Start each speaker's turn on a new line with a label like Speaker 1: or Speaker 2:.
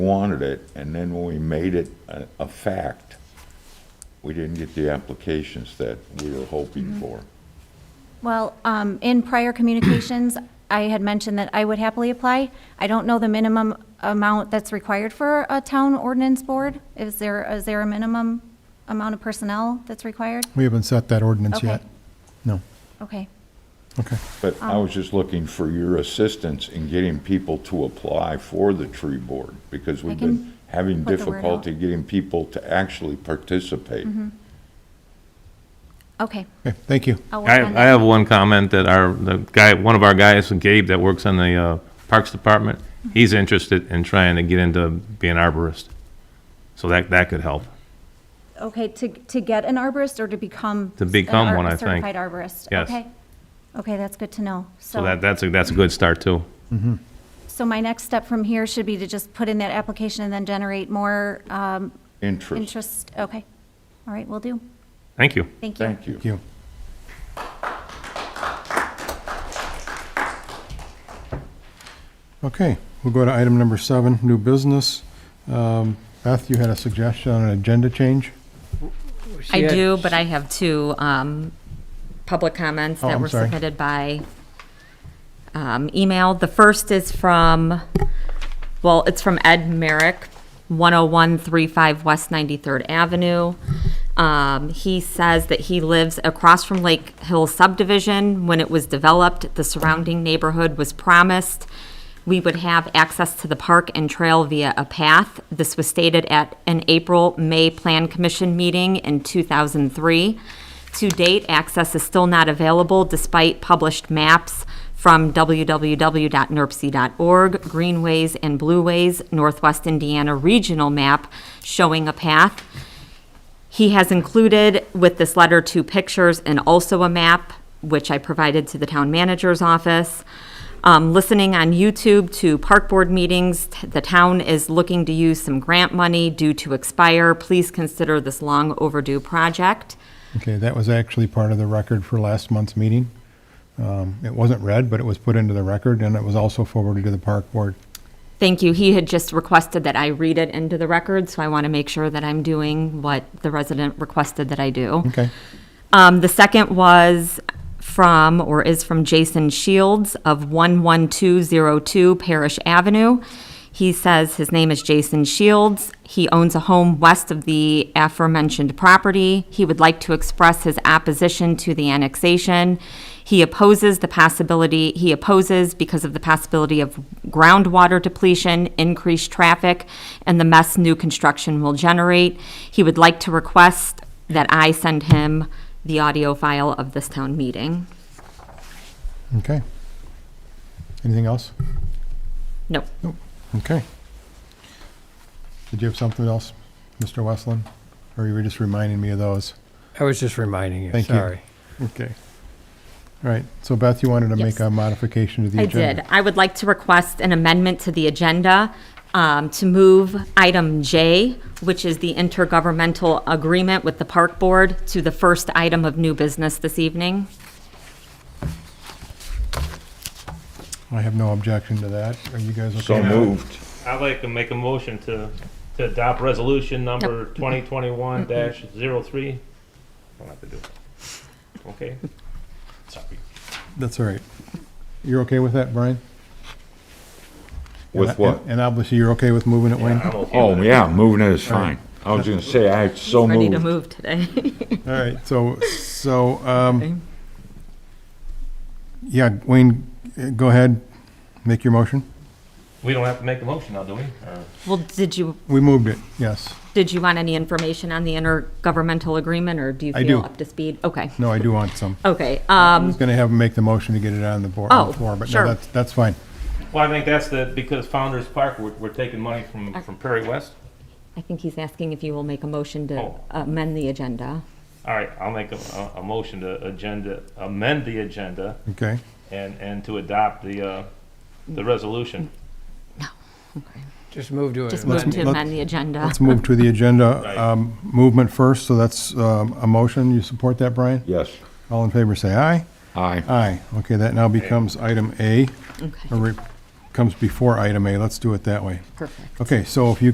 Speaker 1: wanted it, and then when we made it a, a fact, we didn't get the applications that we were
Speaker 2: Mm-hmm.
Speaker 1: hoping for.
Speaker 2: Well, um, in prior communications, I had mentioned that I would happily apply. I don't know the minimum amount that's required for a town ordinance board. Is there, is there a minimum amount of personnel that's required?
Speaker 3: We haven't set that ordinance
Speaker 2: Okay.
Speaker 3: yet. No.
Speaker 2: Okay.
Speaker 3: Okay.
Speaker 1: But I
Speaker 2: Um,
Speaker 1: was just looking for your assistance in getting people to apply for the tree board, because we've been
Speaker 2: can
Speaker 1: having
Speaker 2: put the word out. Mm-hmm.
Speaker 1: difficulty getting people to actually participate.
Speaker 2: Okay,
Speaker 3: Okay, thank you.
Speaker 2: I'll work
Speaker 4: I,
Speaker 2: on
Speaker 4: I
Speaker 2: that.
Speaker 4: have one comment that our, the guy, one of our guys, Gabe, that works on the uh, Parks Department, he's interested in trying to get into being arborist. So that, that could help.
Speaker 2: Okay, to, to get an arborist or to become?
Speaker 4: To become
Speaker 2: an ar-
Speaker 4: one, I think.
Speaker 2: Certified arborist?
Speaker 4: Yes.
Speaker 2: Okay. Okay, that's good to know.
Speaker 4: So that, that's a, that's a good start too.
Speaker 2: So my next step from here should be to just put in that application and then generate more, um,
Speaker 1: Interest,
Speaker 2: interest. Okay. All right, will do.
Speaker 4: Thank you.
Speaker 2: Thank you.
Speaker 1: thank you.
Speaker 3: Thank you. Okay, we'll go to item number seven, new business. Um, Beth, you had a suggestion on an agenda change?
Speaker 5: I
Speaker 6: Yeah.
Speaker 5: do, but I have two um, public comments
Speaker 3: Oh,
Speaker 5: that
Speaker 3: I'm
Speaker 5: were
Speaker 3: sorry.
Speaker 5: submitted by um, email. The first is from, well, it's from Ed Merrick, 10135 West 93rd Avenue. Um, He says that he lives across from Lake Hill subdivision. When it was developed, the surrounding neighborhood was promised we would have access to the park and trail via a path. This was stated at an April May Plan Commission meeting in 2003. To date, access is still not available despite published maps from E www.nerpc.org, greenways and blueways, Northwest Indiana regional map showing a path. He has included with this letter two pictures and also a map, which I provided to the town manager's office. Um, listening on YouTube to park board meetings, t- the town is looking to use some grant money due to expire. Please consider this long overdue project.
Speaker 3: Okay, that was actually part of the record for last month's meeting. Um, It wasn't read, but it was put into the record, and it was also forwarded to the park board.
Speaker 5: Thank you. He had just requested that I read it into the record, so I want to make sure that I'm doing what the resident requested that I do.
Speaker 3: Okay,
Speaker 5: Um, the second was from, or is from Jason Shields of 11202 Parish Avenue. He says his name is Jason Shields. He owns a home west of the aforementioned property. He would like to express his opposition to the annexation. He opposes the possibility, he opposes because of the possibility of groundwater depletion, increased traffic, and the mess new construction will generate. He would like to request that I send him the audio file of this town meeting.
Speaker 3: okay. Anything else?
Speaker 5: No,
Speaker 3: Okay. Did you have something else, Mr. Westland? Or you were just reminding me of those?
Speaker 6: I was just reminding you,
Speaker 3: Thank you.
Speaker 6: sorry.
Speaker 3: Okay. All right, so Beth, you wanted to make
Speaker 5: Yes.
Speaker 3: a modification to the
Speaker 5: I
Speaker 3: agenda?
Speaker 5: did. I would like to request an amendment to the agenda um, to move item J, which is the intergovernmental agreement with the park board, to the first item of new business this evening.
Speaker 3: I have no objection to that. Are you guys okay?
Speaker 1: So
Speaker 3: with that?
Speaker 1: moved.
Speaker 4: I'd like to make a motion to, to adopt resolution number 2021 dash 03. I'll have to do it. Okay? Sorry.
Speaker 3: That's all right. You're okay with that, Brian?
Speaker 1: With
Speaker 3: And-
Speaker 1: what?
Speaker 3: And obviously, you're okay with moving it, Wayne? All
Speaker 1: Oh, yeah, moving it is fine. I was gonna say, I so
Speaker 5: Ready to
Speaker 1: moved.
Speaker 5: move today.
Speaker 3: right, so, so, um, yeah, Wayne, uh, go ahead, make your motion.
Speaker 4: We don't have to make a motion now, do we? Or-
Speaker 5: Well, did you,
Speaker 3: We moved it, yes.
Speaker 5: did you want any information on the intergovernmental agreement, or do you
Speaker 3: I
Speaker 5: feel
Speaker 3: do.
Speaker 5: up to speed? Okay,
Speaker 3: No, I do want some.
Speaker 5: okay.
Speaker 3: I
Speaker 5: Um,
Speaker 3: was gonna have him make the motion to get it on the board, on
Speaker 5: Oh,
Speaker 3: the floor, but no,
Speaker 5: sure.
Speaker 3: that's, that's fine.
Speaker 4: Well, I think that's the, because Founder's Park, we're, we're taking money from, from Perry West.
Speaker 5: I think he's asking if you will make a motion to
Speaker 4: Oh.
Speaker 5: amend the agenda.
Speaker 4: All right, I'll make a, a, a motion to agenda, amend the agenda
Speaker 3: Okay,
Speaker 4: and, and to adopt the, uh, the resolution.
Speaker 6: Just move to
Speaker 5: Just
Speaker 6: it.
Speaker 5: move to
Speaker 3: let's-
Speaker 5: amend the agenda.
Speaker 3: let's move to the agenda
Speaker 4: Right.
Speaker 3: um, movement first, so that's um, a motion. You support that, Brian?
Speaker 1: Yes,
Speaker 3: All in favor, say aye.
Speaker 1: aye.
Speaker 3: Aye. Okay, that now becomes item A,
Speaker 5: Okay.
Speaker 3: a re- comes before item A, let's do it that way.
Speaker 5: Perfect.
Speaker 3: Okay, so if you